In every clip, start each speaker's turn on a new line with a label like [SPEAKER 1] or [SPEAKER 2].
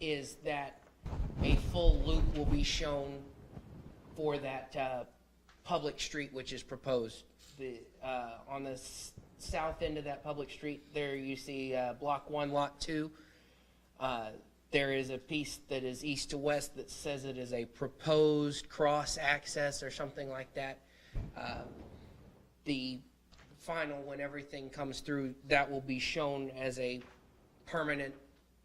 [SPEAKER 1] is that a full loop will be shown for that uh, public street which is proposed. The, uh, on the s- south end of that public street, there you see uh, Block 1, Lot 2. Uh, There is a piece that is east to west that says it is a proposed cross-access or something like that. Uh, The final, when everything comes through, that will be shown as a permanent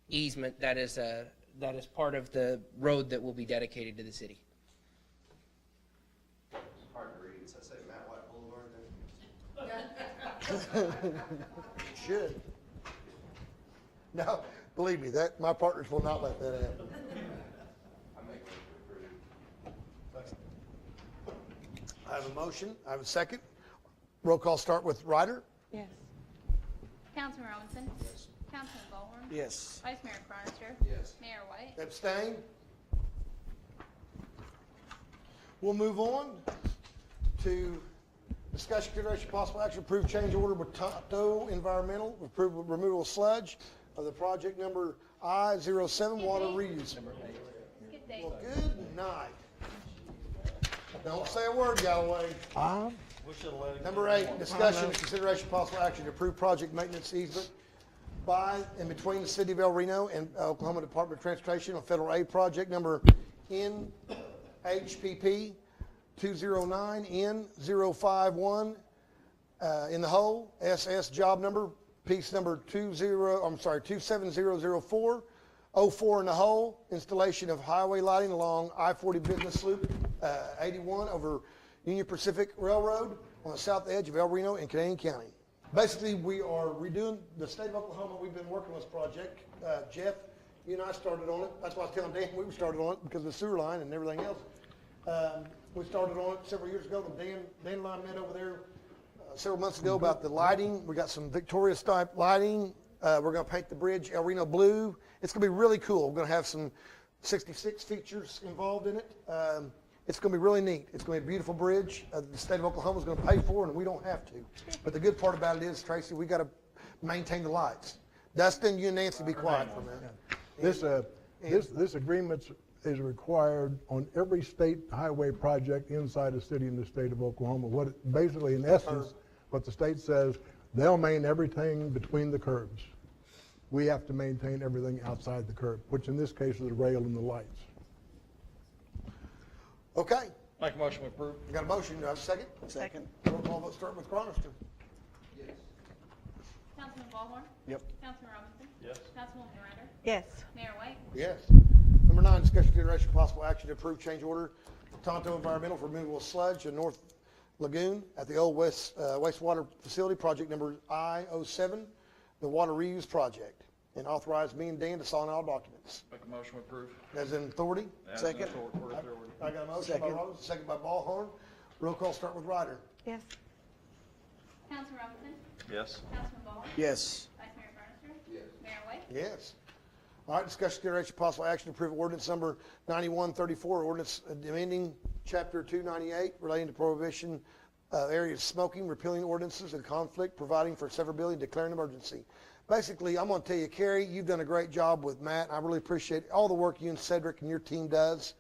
[SPEAKER 1] easement that is a, that is part of the road that will be dedicated to the city.
[SPEAKER 2] Hard to read, does that say Matt White Boulevard there?
[SPEAKER 3] It should. No, believe me, that, my partners will not let that happen.
[SPEAKER 2] I make one for approve.
[SPEAKER 3] I have a motion, I have a second. Roll call start with Ryder.
[SPEAKER 4] Yes.
[SPEAKER 5] Councilman Robinson? Councilman Ballhorn?
[SPEAKER 3] Yes.
[SPEAKER 5] Vice Mayor Cronister?
[SPEAKER 2] Yes.
[SPEAKER 5] Mayor White?
[SPEAKER 3] Abstain? We'll move on to discussion, consideration, possible action, approve change order with Tonto Environmental, approve removal of sludge of the project number I-07 water reuse.
[SPEAKER 5] Good day.
[SPEAKER 3] Well, good night. Don't say a word, Galloway. Number eight, discussion, consideration, possible action to approve project maintenance easement by and between the city of El Reno and Oklahoma Department of Transportation on federal aid project number NHPP two zero nine N 51 uh, in the hole, SS job number, piece number two zero, I'm sorry, two seven zero zero four, oh four in the hole, installation of highway lighting along I forty business loop, uh, eighty-one over Union Pacific Railroad on the south edge of El Reno in Canadian County. Basically, we are redoing, the state of Oklahoma, we've been working on this project, uh, Jeff, you and I started on it, that's why I was telling Dan, we started on it because of the sewer line and everything else. Um, we started on it several years ago, and Dan, Dan and I met over there, uh, several months ago about the lighting. We got some Victoria type lighting. Uh, we're gonna paint the bridge El Reno blue. It's gonna be really cool. We're gonna have some sixty-six features involved in it. Um, it's gonna be really neat. It's gonna be a beautiful bridge. Uh, the state of Oklahoma's gonna pay for it and we don't have to. But the good part about it is, Tracy, we gotta maintain the lights. Dustin, you and Nancy be quiet for a minute.
[SPEAKER 6] This, uh, this, this agreement is required on every state highway project inside a city in the state of Oklahoma. What, it- basically, in essence, what the state says, they'll maintain everything between the curbs. We have to maintain everything outside the curb, which in this case is the rail and the lights.
[SPEAKER 3] Okay,
[SPEAKER 7] Make a motion to approve.
[SPEAKER 3] I got a motion. Do I have a second?
[SPEAKER 4] Second.
[SPEAKER 3] Roll call vote start with Cronister.
[SPEAKER 2] Yes.
[SPEAKER 5] Councilman Ballhorn?
[SPEAKER 3] Yep.
[SPEAKER 5] Councilman Robinson?
[SPEAKER 7] Yes.
[SPEAKER 5] Councilwoman Ryder?
[SPEAKER 4] Yes.
[SPEAKER 5] Mayor White?
[SPEAKER 3] Yes. Number nine, discussion consideration possible action to approve change order Tonto Environmental for removal of sludge in North Lagoon at the old west, uh, wastewater facility, project number I oh seven, the water reuse project, and authorize me and Dan to sign all documents.
[SPEAKER 7] Make a motion to approve.
[SPEAKER 3] As in authority?
[SPEAKER 7] As
[SPEAKER 8] Second.
[SPEAKER 7] an author- word authority.
[SPEAKER 3] I got a motion by
[SPEAKER 8] Second.
[SPEAKER 3] Robinson, second by Ballhorn. Roll call start with Ryder.
[SPEAKER 4] Yes.
[SPEAKER 5] Councilman Robinson?
[SPEAKER 7] Yes.
[SPEAKER 5] Councilman Ballhorn?
[SPEAKER 8] Yes.
[SPEAKER 5] Vice Mayor Cronister?
[SPEAKER 2] Yes.
[SPEAKER 5] Mayor White?
[SPEAKER 3] Yes. All right, discussion consideration possible action to approve ordinance number 9134, ordinance amending chapter 298 relating to prohibition uh, area of smoking, repealing ordinances in conflict, providing for severability, and declaring emergency. Basically, I'm going to tell you, Carrie, you've done a great job with Matt. I really appreciate all the work you and Cedric and your team does.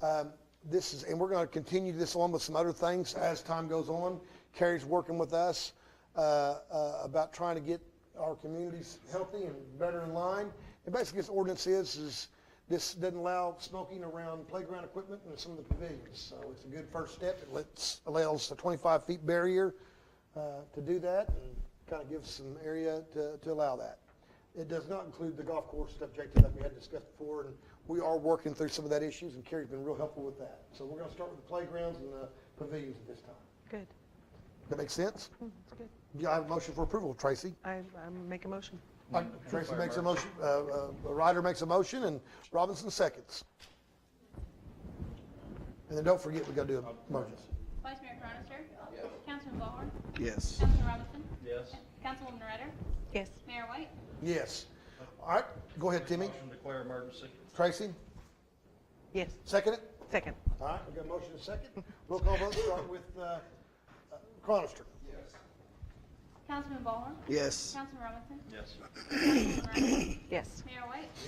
[SPEAKER 3] Um, This is, and we're going to continue this on with some other things as time goes on. Carrie's working with us uh, uh, about trying to get our communities healthy and better in line. And basically, this ordinance is, is this doesn't allow smoking around playground equipment and some of the pavilions. So it's a good first step. It lets, allows a 25 feet barrier uh, to do that and kind of gives some area to, to allow that. It does not include the golf course objective that we had discussed before, and we are working through some of that issues, and Carrie's been real helpful with that. So we're gonna start with the playgrounds and the pavilions at this time.
[SPEAKER 4] Good.
[SPEAKER 3] That makes sense?
[SPEAKER 4] Mm, That's good.
[SPEAKER 3] Yeah, I have a motion for approval, Tracy.
[SPEAKER 4] I, I make a motion.
[SPEAKER 3] Uh, Tracy makes a motion, uh, uh, Ryder makes a motion, and Robinson seconds. And then don't forget, we gotta do a motion.
[SPEAKER 5] Vice Mayor Cronister?
[SPEAKER 2] Yes.
[SPEAKER 5] Councilman Ballhorn?
[SPEAKER 8] Yes.
[SPEAKER 5] Councilman Robinson?
[SPEAKER 7] Yes.
[SPEAKER 5] Councilwoman Ryder?
[SPEAKER 4] Yes.
[SPEAKER 5] Mayor White?
[SPEAKER 3] Yes. All right, go ahead, Timmy.
[SPEAKER 7] Motion to declare emergency.
[SPEAKER 3] Tracy,
[SPEAKER 4] Yes.
[SPEAKER 3] second it?
[SPEAKER 4] Second.
[SPEAKER 3] All right, we got a motion and a second. Roll call vote, start with, uh, uh, Cronister.
[SPEAKER 2] Yes.
[SPEAKER 5] Councilman Ballhorn?
[SPEAKER 8] Yes.
[SPEAKER 5] Councilman Robinson?
[SPEAKER 7] Yes.
[SPEAKER 5] Councilwoman Ryder?
[SPEAKER 4] Yes.
[SPEAKER 5] Mayor White?